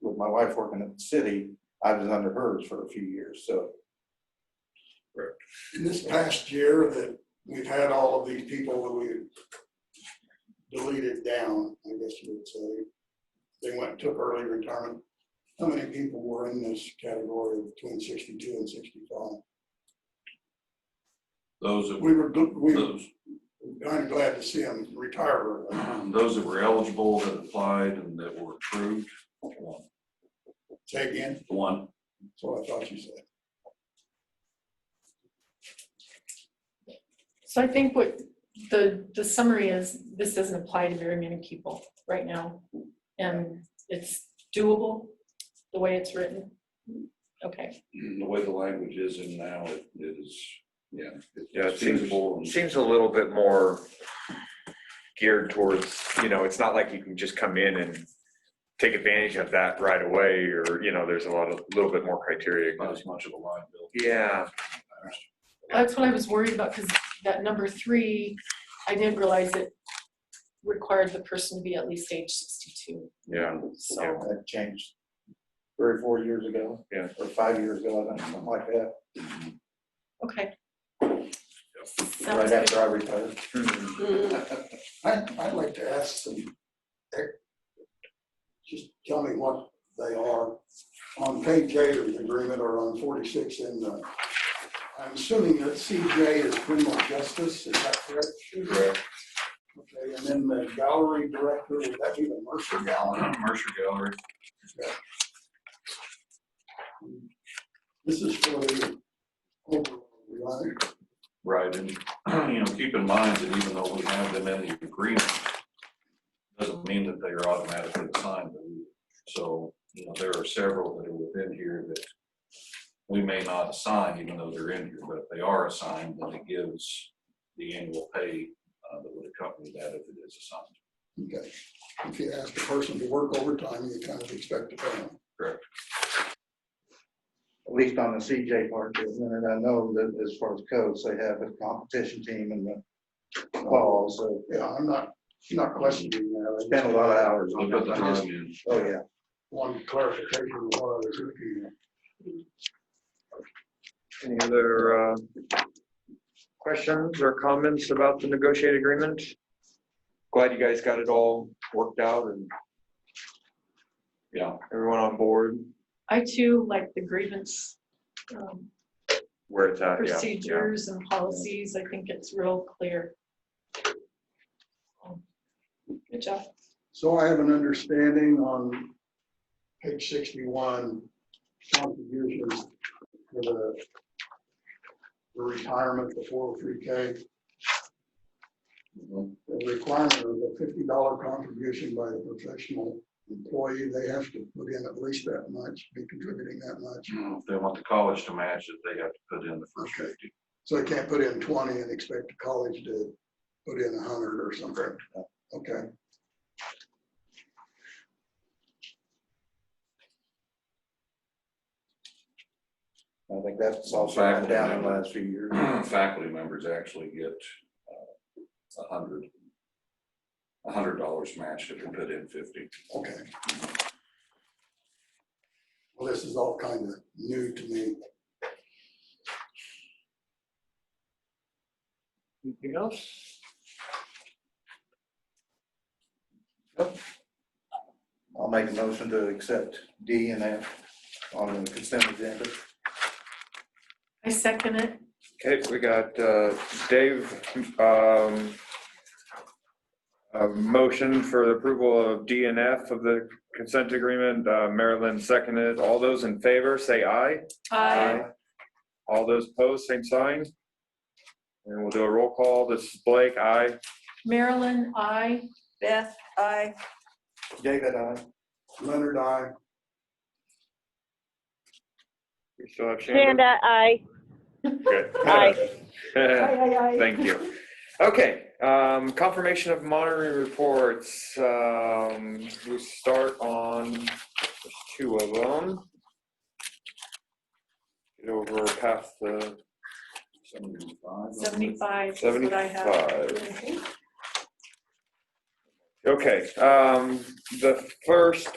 with my wife working at the city, I was under hers for a few years, so. in this past year that we've had all of these people that we deleted down, I guess you would say, they went and took early retirement. How many people were in this category of between sixty-two and sixty-five? Those that were, We were, gl- we were those, kind of glad to see them retire early. those that were eligible that applied and that were approved, one, Say again, one. that's what I thought you said. So I think what the, the summary is, this doesn't apply to very many people right now. And it's doable, the way it's written. Okay, The way the language is in now, it it is, yeah. Yeah, it it's seems- feasible and- Seems a little bit more geared towards, you know, it's not like you can just come in and take advantage of that right away, or, you know, there's a lot of, little bit more criteria. Not as much of a liability. Yeah, that's what I was worried about, because that number three, I didn't realize it required the person to be at least age sixty-two, yeah, so. That changed three or four years ago. Yeah. Or five years ago, I don't know, something like that, Okay. right Sounds good. after I retired. Hmm. I, I'd like to ask them, eh, just tell me what they are. On page eight of the agreement or on forty-six in the, I'm assuming that CJ is criminal justice, is that correct? Correct. Okay, and then the gallery director, would that be the Mercer Gallery? Mercer Gallery, This is for the, overall, right? right, and, you know, keep in mind that even though we have them in the agreement, doesn't mean that they are automatically assigned, them. so, you know, there are several that are within here that we may not assign, even though they're in here, but if they are assigned, then it gives the annual pay uh, that would accompany that if it is assigned. Okay, if you ask a person to work overtime, you kind of expect to pay them. at least on the CJ part, for a minute, I know that as far as codes, they have a competition team in the fall, so Yeah, I'm not, not questioning that. I spend a lot of hours So on put the that. I just- time in. Oh, yeah. one clarification of what I was looking at. Any other uh, questions or comments about the negotiated agreement? Glad you guys got it all worked out and Yeah, everyone on board I too like the grievance um, where it's at, yeah. yeah. procedures and policies. I think it's real clear. Good job. So I have an understanding on page sixty-one, contributions for the the retirement, the four oh three K, Mhm. the requirement of a fifty dollar contribution by the professional employee, they have to put in at least that much, be contributing that much. If they want the college to match it, they have to put in the first Okay. fifty. So they can't put in twenty and expect the college to put in a hundred or something. Okay. I think that's also Faculty been down in the member. last few years. Faculty members actually get uh, a hundred, a hundred dollars matched if they put in fifty. Okay. Well, this is all kind of new to me. Anything else? I'll make a motion to accept D and F on the consent agenda. I second it. Okay, we got uh, Dave, um, a motion for the approval of D and F of the consent agreement. Uh, Marilyn seconded. All those in favor, say aye. I All those opposed, same sign. And we'll do a roll call. This is Blake, aye. Marilyn, I. Beth, I. David, I, Leonard, I. We still have Shannon. Amanda, I. Good. Aye. Thank you. Okay, um, confirmation of monitoring reports. Um, we start on there's two of them. Get over past the Seventy-five. Seventy-five is what I have. Okay, um, the first